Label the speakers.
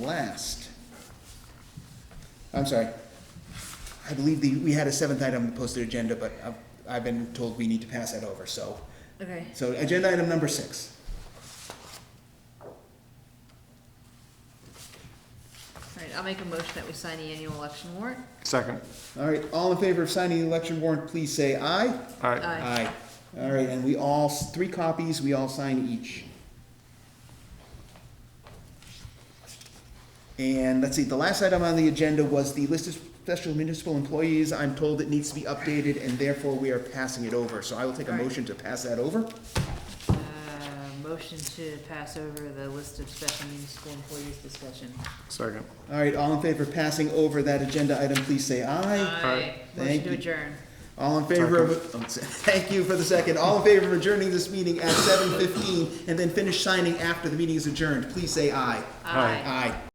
Speaker 1: last. I'm sorry. I believe the, we had a seventh item on the posted agenda, but I've, I've been told we need to pass that over, so.
Speaker 2: Okay,
Speaker 1: So agenda item number six.
Speaker 2: all right, I'll make a motion that we sign the annual election warrant.
Speaker 3: Second.
Speaker 1: All right, all in favor of signing the election warrant, please say aye.
Speaker 3: All right.
Speaker 2: Aye.
Speaker 1: All right, and we all, s- three copies, we all sign each. And let's see, the last item on the agenda was the list of special municipal employees. I'm told it needs to be updated and therefore we are passing it over. So I will take a
Speaker 2: All right.
Speaker 1: motion to pass that over.
Speaker 2: Uh, motion to pass over the list of special municipal employees discussion.
Speaker 3: Second.
Speaker 1: All right, all in favor of passing over that agenda item, please say aye.
Speaker 2: Aye. Motion
Speaker 1: Thank
Speaker 2: to
Speaker 1: you.
Speaker 2: adjourn.
Speaker 1: All in favor of, oh, thank you for the second. All in favor of adjourning this meeting at seven fifteen and then finish signing after the meeting is adjourned, please say aye.
Speaker 3: Aye.
Speaker 2: Aye.
Speaker 1: Aye.